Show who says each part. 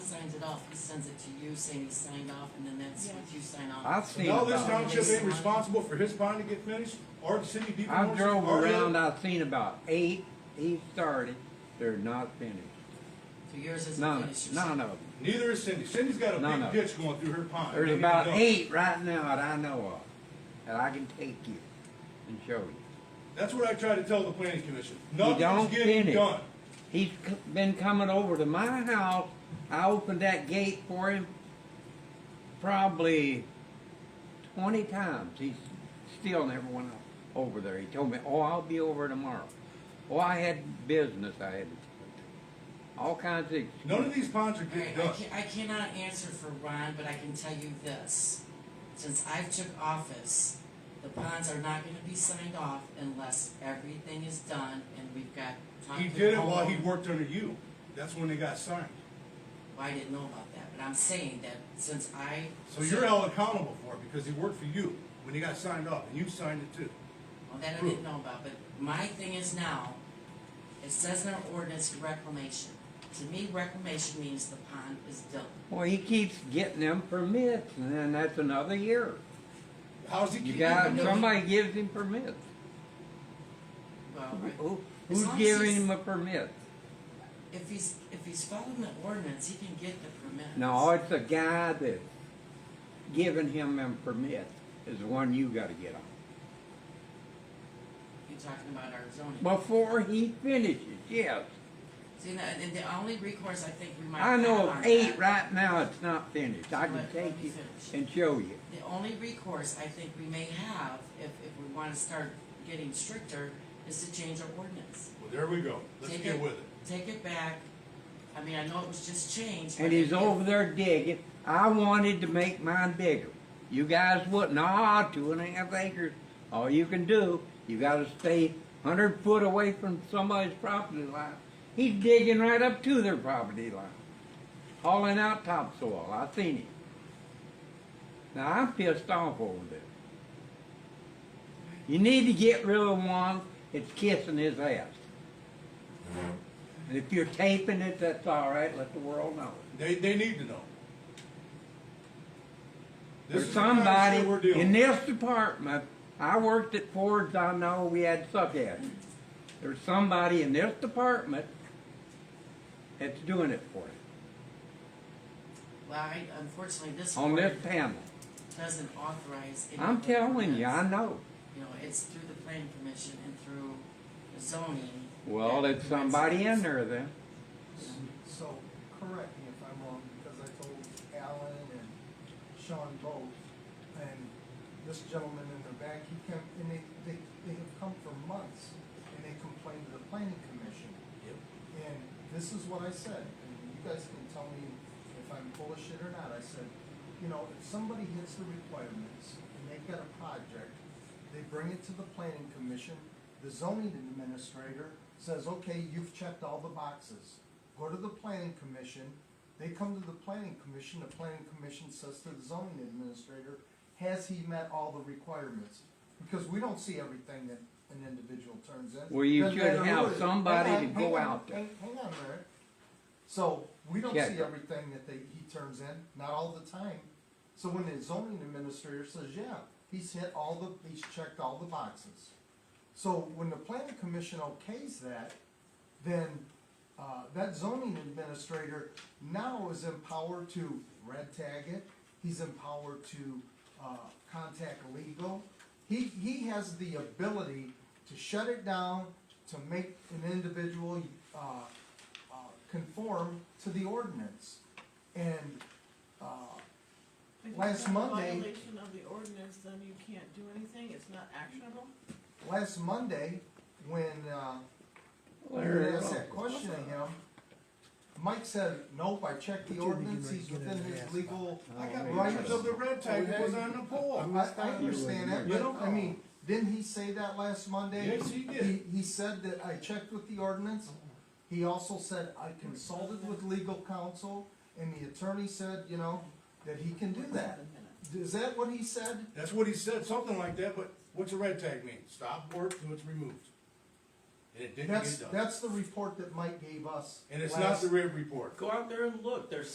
Speaker 1: it off, he sends it to you saying he signed off, and then that's what you sign off.
Speaker 2: I've seen
Speaker 3: Now
Speaker 2: about
Speaker 3: this
Speaker 2: it.
Speaker 3: township ain't responsible for his bond to get finished, or the city of Beaver
Speaker 2: I
Speaker 3: Norris.
Speaker 2: drove
Speaker 3: or the-
Speaker 2: around, I've seen about eight, eight thirty, they're not finished.
Speaker 1: So yours isn't
Speaker 2: None,
Speaker 1: finished.
Speaker 2: none of them.
Speaker 3: Neither is Cindy. Cindy's got
Speaker 2: No,
Speaker 3: a
Speaker 2: no.
Speaker 3: big ditch going through her pond.
Speaker 2: There's
Speaker 3: They need
Speaker 2: about
Speaker 3: to know.
Speaker 2: eight right now that I know of, that I can take you and show you.
Speaker 3: That's what I try to tell the planning commission.
Speaker 2: don't
Speaker 3: Nothing's getting
Speaker 2: finish.
Speaker 3: done.
Speaker 2: He's c- been coming over to my house, I opened that gate for him probably twenty times, he's still never went o- over there, he told me, oh, I'll be over tomorrow. Oh, I had business I had to, all kinds of excuses.
Speaker 3: None of these ponds are
Speaker 1: Alright,
Speaker 3: getting
Speaker 1: I
Speaker 3: done.
Speaker 1: can I cannot answer for Ron, but I can tell you this. Since I've took office, the ponds are not gonna be signed off unless everything is done and we've got.
Speaker 3: He
Speaker 1: talked to
Speaker 3: did it
Speaker 1: the
Speaker 3: while he
Speaker 1: homeowner.
Speaker 3: worked under you. That's when they got signed.
Speaker 1: Well, I didn't know about that, but I'm saying that since I.
Speaker 3: So you're held accountable for it because he worked for you when he got signed off, and you signed it too.
Speaker 1: Well, that I didn't know about, but my thing is now, it says in our ordinance reclamation. To me, reclamation means the pond is done.
Speaker 2: Well, he keeps getting them permits, and then that's another year.
Speaker 3: How's he
Speaker 2: You
Speaker 3: keeping?
Speaker 2: got,
Speaker 3: it?
Speaker 2: somebody gives him permits.
Speaker 1: Well,
Speaker 2: Who,
Speaker 1: As
Speaker 2: who's
Speaker 1: long as
Speaker 2: giving
Speaker 1: he's-
Speaker 2: him a permit?
Speaker 1: if he's, if he's following the ordinance, he can get the permit.
Speaker 2: No, it's the guy that's giving him them permits is the one you gotta get on.
Speaker 1: You're talking about our zoning.
Speaker 2: Before he finishes, yes.
Speaker 1: See, now, and the only recourse I think we might
Speaker 2: I
Speaker 1: have
Speaker 2: know
Speaker 1: on
Speaker 2: of eight
Speaker 1: that-
Speaker 2: right now, it's not finished. I can
Speaker 1: Let- let
Speaker 2: take
Speaker 1: me
Speaker 2: you
Speaker 1: finish.
Speaker 2: and show you.
Speaker 1: The only recourse I think we may have, if, if we wanna start getting stricter, is to change our ordinance.
Speaker 3: Well, there we go. Let's
Speaker 1: Take
Speaker 3: get
Speaker 1: it.
Speaker 3: with it.
Speaker 1: Take it back, I mean, I know it was just changed.
Speaker 2: And
Speaker 1: but
Speaker 2: he's
Speaker 1: if-
Speaker 2: over there digging. I wanted to make mine bigger. You guys wouldn't. Ah, two and a half acres. All you can do, you gotta stay hundred foot away from somebody's property line. He's digging right up to their property line, hauling out topsoil. I seen him. Now I'm pissed off over this. You need to get rid of one that's kissing his ass. And if you're taping it, that's all right. Let the world know.
Speaker 3: They, they need to know. This
Speaker 2: There's
Speaker 3: is the kind of
Speaker 2: somebody
Speaker 3: shit we're dealing
Speaker 2: in
Speaker 3: with.
Speaker 2: this department, I worked at Ford's, I know we had suckheads. There's somebody in this department that's doing it for you,
Speaker 1: Well, I, unfortunately, this
Speaker 2: on this
Speaker 1: board
Speaker 2: panel.
Speaker 1: doesn't authorize. any
Speaker 2: I'm
Speaker 1: of the
Speaker 2: telling you, I
Speaker 1: ordinance.
Speaker 2: know.
Speaker 1: You know, it's through the planning commission and through the zoning.
Speaker 2: Well,
Speaker 1: that
Speaker 2: it's somebody in
Speaker 1: provides-
Speaker 2: there then.
Speaker 4: So, correct me if I'm wrong, because I told Alan and Sean both, and this gentleman in the back, he came, and they, they, they have come for months, and they complained to the planning commission. And this is what I said, and you guys can tell me if I'm full of shit or not, I said, you know, if somebody hits the requirements, and they've got a project, they bring it to the planning commission, the zoning administrator says, okay, you've checked all the boxes. Go to the planning commission, they come to the planning commission, the planning commission says to the zoning administrator, has he met all the requirements? Because we don't see everything that an individual turns in.
Speaker 2: Well, you
Speaker 4: Doesn't
Speaker 2: should
Speaker 4: matter who
Speaker 2: have
Speaker 4: it is.
Speaker 2: somebody
Speaker 4: Hang on,
Speaker 2: to go
Speaker 4: hang on,
Speaker 2: out there.
Speaker 4: Hang hang on, Rick. So, we don't
Speaker 2: Check
Speaker 4: see
Speaker 2: it.
Speaker 4: everything that they, he turns in, not all the time. So when the zoning administrator says, yeah, he's hit all the, he's checked all the boxes. So when the planning commission okays that, then, uh, that zoning administrator now is empowered to red tag it, he's empowered to, uh, contact legal. He, he has the ability to shut it down, to make an individual, uh, uh, conform to the ordinance. And, uh,
Speaker 5: If
Speaker 4: Last
Speaker 5: it's not a
Speaker 4: Monday-
Speaker 5: Violation of the ordinance, then you can't do anything, it's not actionable?
Speaker 4: last Monday, when, uh, you
Speaker 2: There it
Speaker 4: asked
Speaker 2: is.
Speaker 4: that question to him, Mike said, nope, I checked the ordinance, he's within his legal
Speaker 2: I got
Speaker 4: rights.
Speaker 3: Writers of the red tag that was on the
Speaker 4: Oh, I,
Speaker 3: pole.
Speaker 4: I understand that,
Speaker 3: You
Speaker 4: but,
Speaker 3: don't
Speaker 4: I mean, didn't he say that last Monday?
Speaker 3: Yes, he did.
Speaker 4: He, he said that I checked with the ordinance, he also said, I consulted with legal counsel, and the attorney said, you know, that he can do that. Is that what he said?
Speaker 3: That's what he said, something like that, but what's a red tag mean? Stop work till it's removed. And it didn't
Speaker 4: That's,
Speaker 3: get done.
Speaker 4: that's the report that Mike gave us.
Speaker 3: And it's
Speaker 4: last-
Speaker 3: not the red report.
Speaker 6: Go out there and look, there's